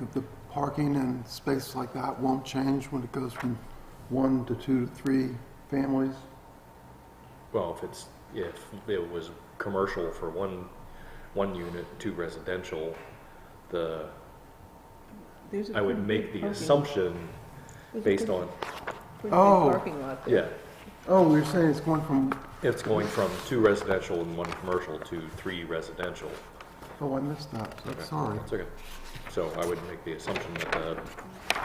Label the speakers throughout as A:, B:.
A: that the parking and space like that won't change when it goes from one to two to three families?
B: Well, if it's, if it was commercial for one, one unit, two residential, the,
C: There's a
B: I would make the
C: parking-
B: assumption
C: there's a
B: based
C: pretty-
B: on,
C: pretty big
A: Oh.
C: Parking lot there.
B: yeah,
A: Oh, you're saying it's going from,
B: it's going from two residential and one commercial to three residential.
A: oh, I missed that, I'm
B: Okay.
A: sorry.
B: That's okay. So I would make the assumption that uh,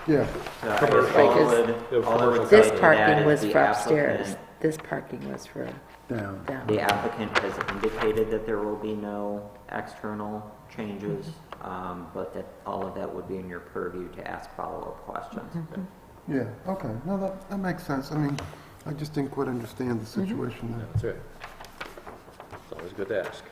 B: the
A: Yeah,
D: No, I guess
B: Commercial.
D: all Uh, it-
B: Because
D: all it
E: This
D: would say to that
E: parking
D: is
E: was
D: the
E: for upstairs.
D: applicant-
E: This parking was for
A: down.
E: down.
D: The applicant has indicated that there will be no external changes, um, but that all of that would be in your purview to ask follow-up questions.
E: Mm-hmm.
A: Yeah, okay, no, that, that makes sense. I mean, I just didn't quite understand the situation
B: No,
A: there.
B: That's right. It's always good to ask.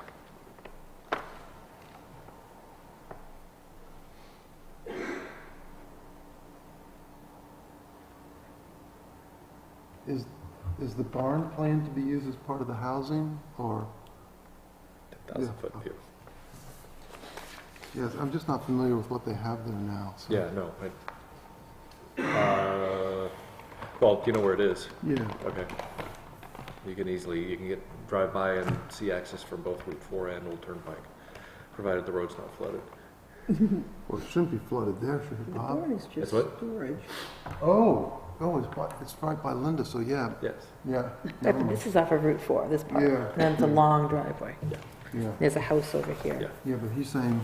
A: Is, is the barn planned to be used as part of the housing, or,
B: Ten thousand
A: Yeah.
B: foot view.
A: yes, I'm just not familiar with what they have there now, so.
B: Yeah, no. I- uh, Well, do you know where it is?
A: Yeah,
B: Okay. You can easily, you can get, drive by and see access from both Route 4 and Old Turnpike, provided the road's not flooded.
A: well, it shouldn't be flooded there, should it,
C: The
A: Bob?
C: barn is just
B: what?
C: storage.
A: Oh, oh, it's by, it's right by Linda, so yeah,
B: Yes.
A: yeah.
E: Uh,
A: never mind.
E: This is off of Route 4, this part.
A: Yeah.
E: And then it's a long driveway.
A: Yeah,
E: There's a house over
B: Yeah.
E: here.
A: yeah, but he's saying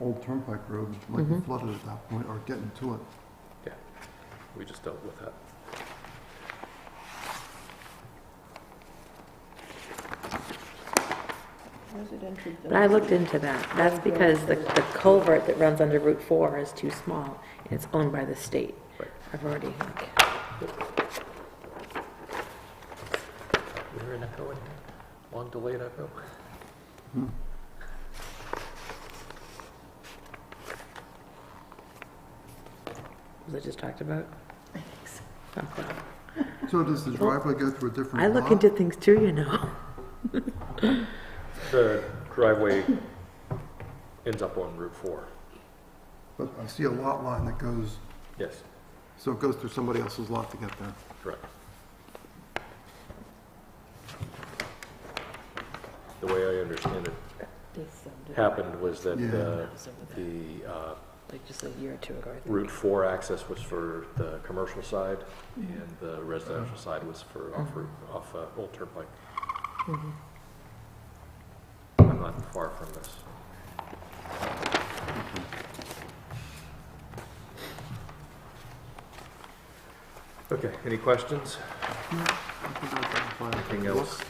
A: Old Turnpike Road might
E: Mm-hmm.
A: be flooded at that point, or getting to it.
B: Yeah. We just dealt with that.
C: Residential.
E: But I looked into that. That's because the the culvert that runs under Route 4 is too small, and it's owned by the state.
B: Right.
E: I've already, like,
B: We hear an echo in here? Long delayed echo?
E: was I just talked about? Okay.
A: So does the driveway go through a different lot?
E: I look into things too, you know.
B: The driveway ends up on Route 4.
A: But I see a lot line that goes,
B: Yes,
A: so it goes through somebody else's lot to get there.
B: correct. The way I understand it happened was that uh, the uh,
E: Like just a year or two ago, I think.
B: Route 4 access was for the commercial side, and the residential side was for off Route, off uh, Old Turnpike. I'm not far from this. Okay, any questions?
A: I think I can find-
B: Anything else,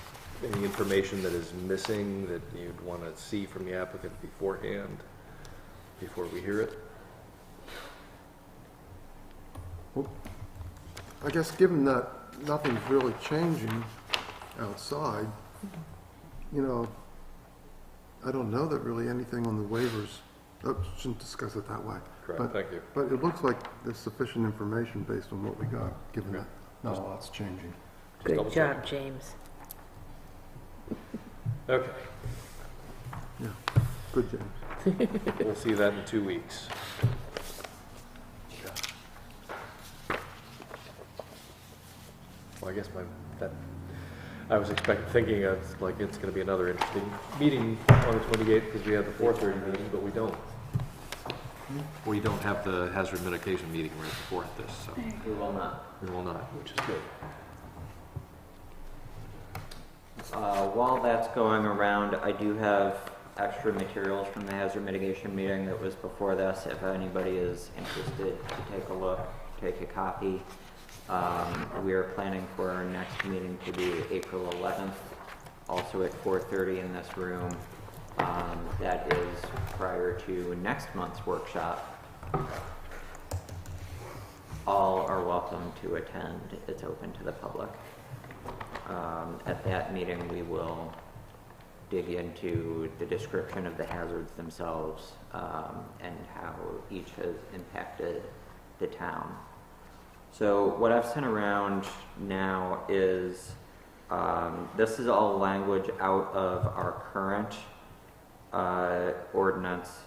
B: any information that is missing that you'd want to see from the applicant beforehand, before we hear it?
A: I guess given that nothing's really changing outside, you know, I don't know that really anything on the waivers, oh, shouldn't discuss it that way.
B: Correct,
A: But-
B: thank you.
A: But it looks like there's sufficient information based on what we got, given that not a lot's changing.
B: Just double
E: Good
B: check.
E: job, James.
B: Okay,
A: Yeah, good, James.
B: we'll see that in two weeks. Well, I guess my, that, I was expecting, thinking it's like, it's gonna be another interesting meeting on the twenty-eighth, because we have the four-thirty meeting, but we don't. We don't have the hazard mitigation meeting right before this, so
D: We will not.
B: we will not, which is good.
D: Uh, While that's going around, I do have extra materials from the hazard mitigation meeting that was before this. If anybody is interested to take a look, take a copy. Um, We are planning for our next meeting to be April 11th, also at 4:30 in this room. Um, That is prior to next month's workshop. All are welcome to attend. It's open to the public. Um, At that meeting, we will dig into the description of the hazards themselves um, and how each has impacted the town. So what I've sent around now is, um, this is all language out of our current uh, ordinance